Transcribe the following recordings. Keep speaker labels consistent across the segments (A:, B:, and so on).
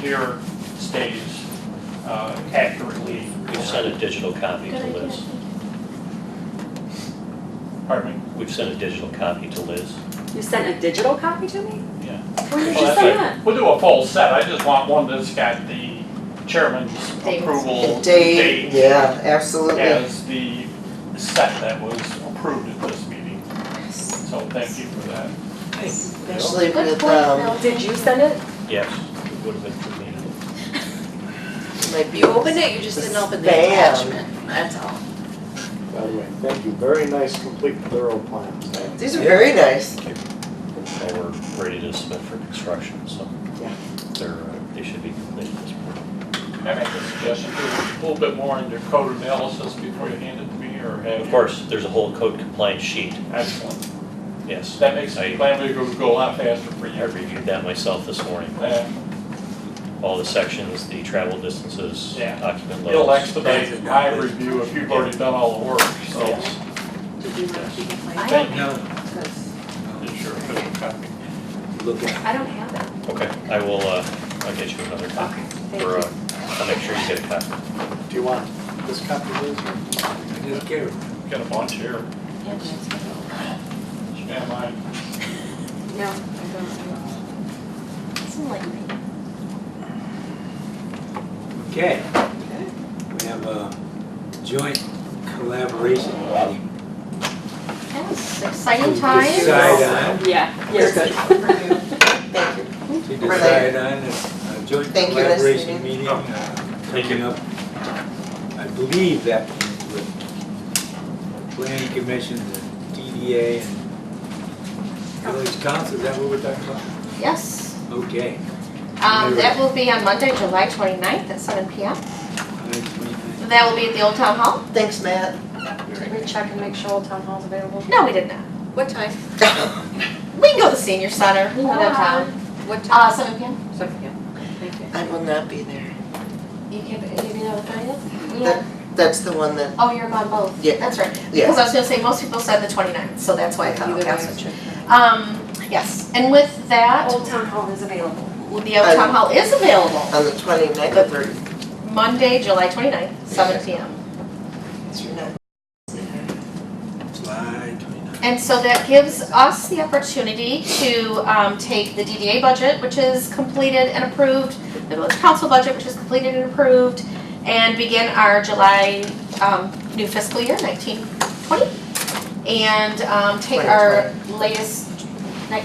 A: engineer stays uh, accurately.
B: We've sent a digital copy to
C: Good idea,
B: Liz.
C: thank you.
A: Pardon me?
B: We've sent a digital copy to Liz.
D: You sent a digital copy to me?
B: Yeah.
D: When
C: Oh,
D: did you
A: Well,
D: send
A: that's
D: that?
A: it. We'll do a full set, I just want one that's got the chairman's
C: Dates.
A: approval
E: The date,
A: date
E: yeah, absolutely.
A: as the set that was approved at this meeting, so thank you for that.
E: Especially
C: Good
E: with,
C: point,
E: um,
C: Mel.
D: Did you send it?
B: Yes, it would have been for me.
E: might be.
C: You opened it, you just didn't open the
E: Spam.
C: attachment, that's all.
F: By the way, thank you, very nice, complete, thorough plan.
E: These are very nice.
B: So we're ready to submit for construction, so
E: Yeah.
B: they're, uh, they should be completed this morning.
A: Can I make a suggestion, do a little bit more on your code analysis before you hand it to me, or have?
B: Of course, there's a whole code compliance sheet,
A: Excellent,
B: yes.
A: that makes
B: I-
A: the plan go, go a lot faster for
B: I
A: you.
B: reviewed that myself this morning.
A: Uh,
B: All the sections, the travel distances,
A: Yeah.
B: occupant
A: It'll
B: levels.
A: expedite my review if you've already done all the work, so.
B: Yes.
D: Did you want to keep it
C: I
D: like?
C: don't,
A: Thank you.
D: Because
A: It's your official copy.
D: I don't have it.
B: Okay, I will, uh, I'll get you another copy.
D: Thank
B: Or, uh,
D: you.
B: I'll make sure you get a copy.
F: Do you want this copy, Liz? or-
A: Got a bunch here,
C: yeah, that's what
A: Yeah, mine.
D: No, I don't.
C: it was. It's enlightening.
G: Okay. We have a joint collaboration meeting.
C: That was exciting
G: To
C: times.
G: decide
D: Yeah, you're good.
E: Thank you.
G: on, to decide on is a joint
E: Thank you, Liz.
G: collaboration meeting uh, coming up. I believe that with planning commission, the DDA and village council, is that what we're talking about?
C: Yes,
G: Okay.
C: um, that will be on Monday, July 29th at seven P M. That will be at the Old Town Hall?
E: Thanks, Matt.
D: Did we check and make sure Old Town Hall's available?
C: No, we did not. What time? We can go to the senior center, we can go downtown.
D: What
C: Uh, seven P M?
D: So, yeah, thank you.
E: I will not be there.
C: You can, you can have a thirtieth?
E: That- That's the one that,
C: Oh, you're on both?
E: Yeah.
C: That's right.
E: Yeah.
C: Because I was gonna say, most people said the 29th, so that's why I thought,
D: Either
C: okay,
D: way,
C: I'll
D: I'll
C: switch.
D: check.
C: Um, yes, and with that,
D: Old Town Hall is available.
C: the Old Town Hall is available
E: on the 29th or 30th.
C: Monday, July 29th, seven P M.
E: You're not
G: July twenty-ninth.
C: And so that gives us the opportunity to um, take the DDA budget, which is completed and approved, the village council budget, which is completed and approved, and begin our July um, new fiscal year, 1920. And um, take our latest, ni-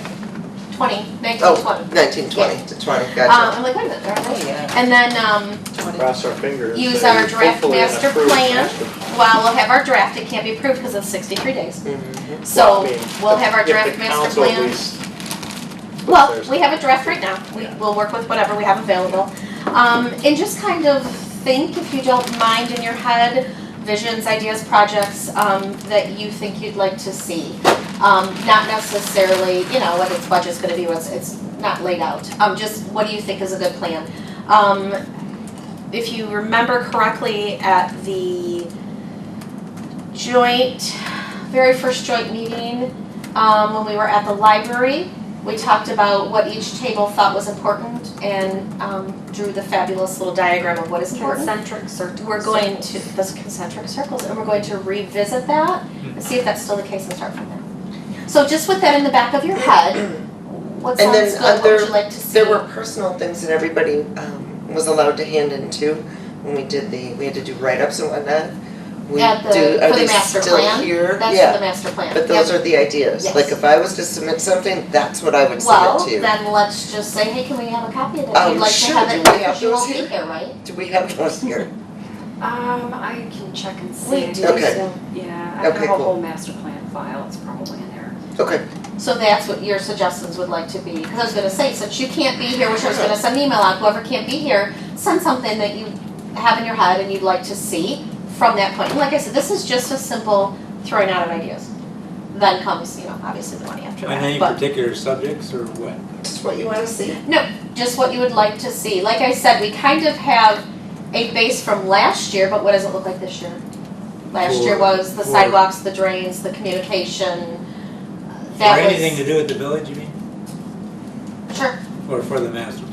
C: 20, 1920.
E: Oh, 1920 to 20,
C: Um,
E: gotcha.
C: I'm like, wait a minute, they're all
E: Oh,
C: right.
E: yeah.
C: And then um,
F: Cross our fingers.
C: Use
F: that
C: our
F: it's
C: draft
F: hopefully an
C: master
F: approved
C: plan.
F: master
C: while we'll have our draft, it can't be approved because of 63 days.
E: Mhm.
C: So
F: Well, I mean,
C: we'll have our
F: if the
C: draft master
F: council at
C: plan.
F: least puts
C: Well,
F: theirs-
C: we have a draft right now. We, we'll work with whatever we have available. Um, and just kind of think, if you don't mind, in your head, visions, ideas, projects, um, that you think you'd like to see. Um, not necessarily, you know, what its budget's gonna be, what's, it's not laid out. Um, just what do you think is a good plan? Um, if you remember correctly, at the joint, very first joint meeting, um, when we were at the library, we talked about what each table thought was important and um, drew the fabulous little diagram of what is important.
D: Concentric circles.
C: We're going to, those concentric circles, and we're going to revisit that and see if that's still the case and start from there. So just with that in the back of your head, what
E: And then
C: sounds good, what
E: other-
C: would you like to see?
E: There were personal things that everybody um, was allowed to hand in too, when we did the, we had to do write-ups and whatnot. We
C: At the-
E: do,
C: for
E: are
C: the
E: they
C: master
E: still
C: plan?
E: here?
C: That's
E: Yeah.
C: for the master plan. Yep.
E: But those are the ideas,
C: Yes.
E: like if I was to submit something, that's what I would
C: Well,
E: submit to.
C: then let's just say, hey, can we have a copy of
E: Oh,
C: that? You'd like to
E: sure,
C: have
E: do
C: it,
E: we have
C: because you won't
E: those
C: be
E: here?
C: here, right?
E: Do we have those here?
D: Um, I can check and see.
C: We do
E: Okay.
D: So, Yeah, I have
E: Okay,
D: a
E: cool.
D: whole master plan file, it's probably in there.
E: Okay,
C: So that's what your suggestions would like to be, because I was gonna say, since you can't be here, which I was gonna send an email out, whoever can't be here, send something that you have in your head and you'd like to see from that point. And like I said, this is just a simple throwing out of ideas. Then comes, you know, obviously the money after
G: On any
C: that, but
G: particular subjects or what?
E: just what you wanna see.
C: just what you would like to see. Like I said, we kind of have a base from last year, but what does it look like this year? Last year
G: For-
C: was the
G: for-
C: sidewalks, the drains, the communication, uh, that
G: Or
C: was.
G: anything to do with the village, you mean?
C: Sure,
G: Or for the master